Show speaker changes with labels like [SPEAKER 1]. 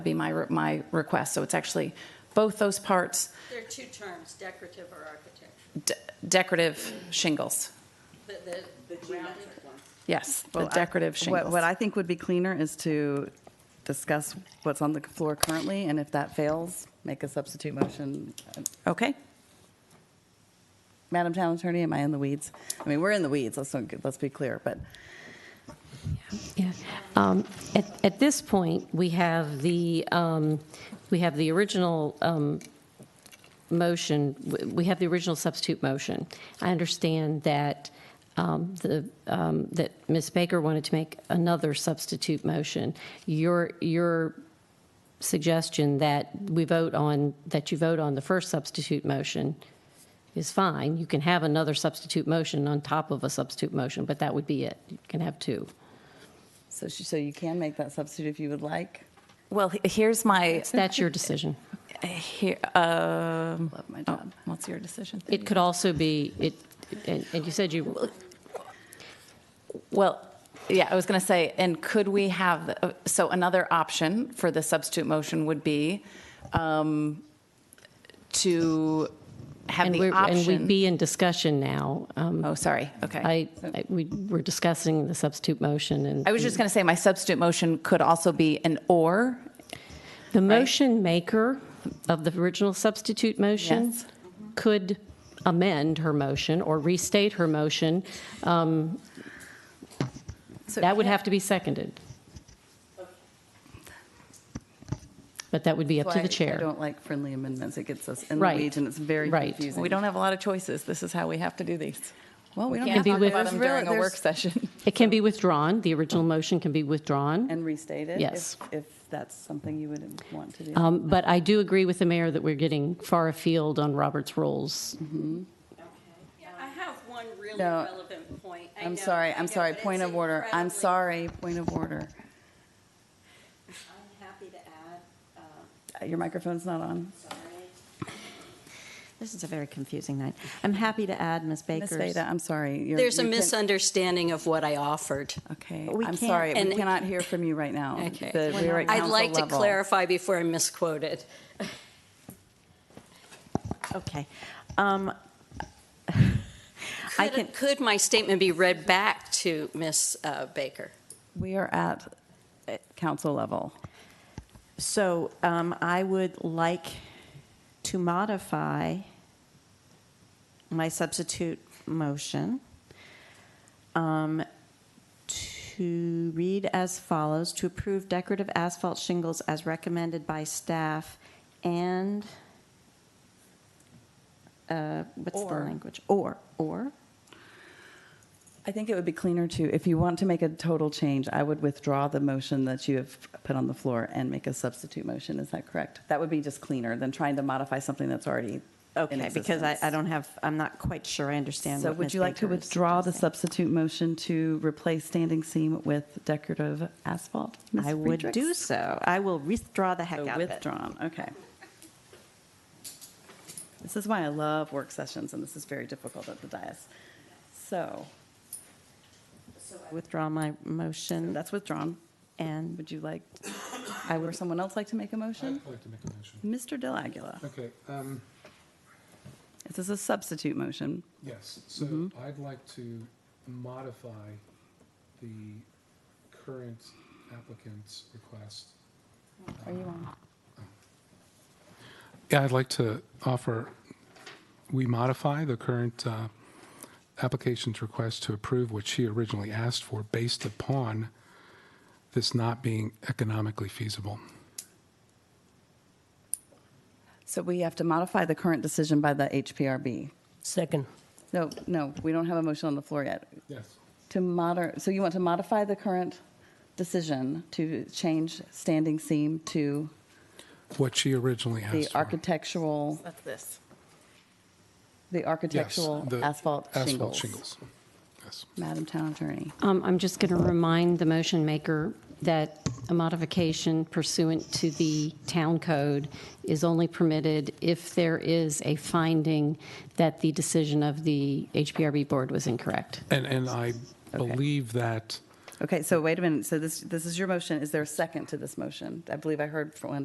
[SPEAKER 1] be my, re- my request. So it's actually both those parts,
[SPEAKER 2] There are two terms, decorative or architectural.
[SPEAKER 1] de- decorative shingles.
[SPEAKER 2] The, the rounded one.
[SPEAKER 1] Yes, the
[SPEAKER 3] Well, I-
[SPEAKER 1] decorative
[SPEAKER 3] what-
[SPEAKER 1] shingles.
[SPEAKER 3] What I think would be cleaner is to discuss what's on the floor currently, and if that fails, make a substitute motion.
[SPEAKER 1] Okay,
[SPEAKER 3] Madam Town Attorney, am I in the weeds? I mean, we're in the weeds, let's, not get- let's be clear, but
[SPEAKER 4] Yeah. Um, At at this point, we have the, um, we have the original um, motion, we have the original substitute motion. I understand that um, the, um, that Ms. Baker wanted to make another substitute motion. Your, your suggestion that we vote on, that you vote on the first substitute motion is fine. You can have another substitute motion on top of a substitute motion, but that would be it. You can have two.
[SPEAKER 3] so she, so you can make that substitute if you would like.
[SPEAKER 1] well, he- here's my,
[SPEAKER 4] That's your decision.
[SPEAKER 1] here, um,
[SPEAKER 3] Love my
[SPEAKER 1] oh,
[SPEAKER 3] job.
[SPEAKER 1] what's your decision?
[SPEAKER 4] It could also be, it, and and you said you,
[SPEAKER 1] Well, yeah, I was going to say, and could we have, uh, so another option for the substitute motion would be um, to have
[SPEAKER 4] and
[SPEAKER 1] the
[SPEAKER 4] we're, and we'd
[SPEAKER 1] option.
[SPEAKER 4] be in discussion now. Um,
[SPEAKER 1] Oh, sorry, okay.
[SPEAKER 4] I, I- we were discussing the substitute motion and.
[SPEAKER 1] I was just going to say, my substitute motion could also be an or,
[SPEAKER 4] The motion maker of the original substitute motion
[SPEAKER 1] Yes.
[SPEAKER 4] could amend her motion or restate her motion. Um,
[SPEAKER 1] So
[SPEAKER 4] That would
[SPEAKER 1] can-
[SPEAKER 4] have to be seconded. But that would be up to
[SPEAKER 3] Why
[SPEAKER 4] the chair.
[SPEAKER 3] I don't like friendly amendments, it gets us in the
[SPEAKER 4] Right.
[SPEAKER 3] weeds and it's very
[SPEAKER 4] Right.
[SPEAKER 3] confusing.
[SPEAKER 1] We don't have a lot of choices. This is how we have to do these.
[SPEAKER 3] Well, we don't
[SPEAKER 1] Can't
[SPEAKER 3] have
[SPEAKER 4] be
[SPEAKER 1] talk
[SPEAKER 4] with-
[SPEAKER 1] about them
[SPEAKER 3] There's
[SPEAKER 1] during
[SPEAKER 3] really-
[SPEAKER 1] a work
[SPEAKER 3] there's-
[SPEAKER 1] session.
[SPEAKER 4] It can be withdrawn, the original motion can be withdrawn,
[SPEAKER 3] And restate it. if-
[SPEAKER 4] Yes.
[SPEAKER 3] If that's something you would want to do.
[SPEAKER 4] Um, but I do agree with the mayor that we're getting far afield on Robert's rules.
[SPEAKER 2] Yeah, I have one really
[SPEAKER 3] No.
[SPEAKER 2] relevant point. I
[SPEAKER 3] I'm
[SPEAKER 2] know,
[SPEAKER 3] sorry,
[SPEAKER 2] I know,
[SPEAKER 3] I'm sorry,
[SPEAKER 2] but it's
[SPEAKER 3] point of order, I'm
[SPEAKER 2] incredibly-
[SPEAKER 3] sorry, point of order.
[SPEAKER 2] I'm happy to add, uh,
[SPEAKER 3] Uh, Your microphone's not on.
[SPEAKER 2] sorry.
[SPEAKER 5] This is a very confusing night. I'm happy to add Ms.
[SPEAKER 3] Ms.
[SPEAKER 5] Baker's.
[SPEAKER 3] Veda, I'm sorry. You're-
[SPEAKER 2] There's a
[SPEAKER 3] you can-
[SPEAKER 2] misunderstanding of what I offered.
[SPEAKER 3] Okay,
[SPEAKER 5] We
[SPEAKER 3] I'm
[SPEAKER 5] can't-
[SPEAKER 3] sorry, we
[SPEAKER 2] and-
[SPEAKER 3] cannot hear from you right now.
[SPEAKER 2] Okay.
[SPEAKER 3] The- we're at
[SPEAKER 2] I'd
[SPEAKER 3] council
[SPEAKER 2] like to
[SPEAKER 3] level.
[SPEAKER 2] clarify before I misquoted.
[SPEAKER 5] Okay. Um, I can,
[SPEAKER 2] Could, could my statement be read back to Ms. uh, Baker?
[SPEAKER 3] We are at uh, council level.
[SPEAKER 5] so um, I would like to modify my substitute motion um, to read as follows, to approve decorative asphalt shingles as recommended by staff and, uh, what's the
[SPEAKER 3] Or.
[SPEAKER 5] language? Or, or?
[SPEAKER 3] I think it would be cleaner to, if you want to make a total change, I would withdraw the motion that you have put on the floor and make a substitute motion, is that correct? That would be just cleaner than trying to modify something that's already in
[SPEAKER 5] Okay, because I, I
[SPEAKER 3] existence.
[SPEAKER 5] don't have, I'm not quite sure I understand
[SPEAKER 3] So
[SPEAKER 5] what
[SPEAKER 3] would
[SPEAKER 5] Ms.
[SPEAKER 3] you like to
[SPEAKER 5] Baker is
[SPEAKER 3] withdraw the
[SPEAKER 5] suggesting.
[SPEAKER 3] substitute motion to replace standing seam with decorative asphalt? Ms.
[SPEAKER 5] I would
[SPEAKER 3] Friedrichs?
[SPEAKER 5] do so. I will withdraw the heck
[SPEAKER 3] So
[SPEAKER 5] out of it.
[SPEAKER 3] withdrawn, okay. This is why I love work sessions, and this is very difficult at the dais. So,
[SPEAKER 5] Withdraw my motion,
[SPEAKER 3] that's withdrawn.
[SPEAKER 5] and
[SPEAKER 3] Would you like,
[SPEAKER 5] I
[SPEAKER 3] or
[SPEAKER 5] would,
[SPEAKER 3] someone else like to make a motion?
[SPEAKER 6] I'd like to make a motion.
[SPEAKER 3] Mr. Del Aguila,
[SPEAKER 6] Okay, um,
[SPEAKER 3] this is a substitute motion.
[SPEAKER 6] yes, so
[SPEAKER 3] Mm-hmm.
[SPEAKER 6] I'd like to modify the current applicant's request.
[SPEAKER 3] Are you on?
[SPEAKER 6] Oh. Yeah, I'd like to offer, we modify the current uh, application's request to approve what she originally asked for based upon this not being economically feasible.
[SPEAKER 3] So we have to modify the current decision by the HPRB.
[SPEAKER 7] Second.
[SPEAKER 3] No, no, we don't have a motion on the floor yet.
[SPEAKER 6] Yes.
[SPEAKER 3] To moder, so you want to modify the current decision to change standing seam to
[SPEAKER 6] What she originally
[SPEAKER 3] the
[SPEAKER 6] asked for.
[SPEAKER 3] architectural
[SPEAKER 1] That's this.
[SPEAKER 3] The
[SPEAKER 6] Yes,
[SPEAKER 3] architectural
[SPEAKER 6] the
[SPEAKER 3] asphalt
[SPEAKER 6] Asphalt
[SPEAKER 3] shingles.
[SPEAKER 6] shingles, yes.
[SPEAKER 3] Madam Town Attorney.
[SPEAKER 4] Um, I'm just going to remind the motion maker that a modification pursuant to the town code is only permitted if there is a finding that the decision of the HPRB board was incorrect.
[SPEAKER 6] And, and I believe that
[SPEAKER 3] Okay, so wait a minute. So this, this is your motion. Is there a second to this motion? I believe I heard from one.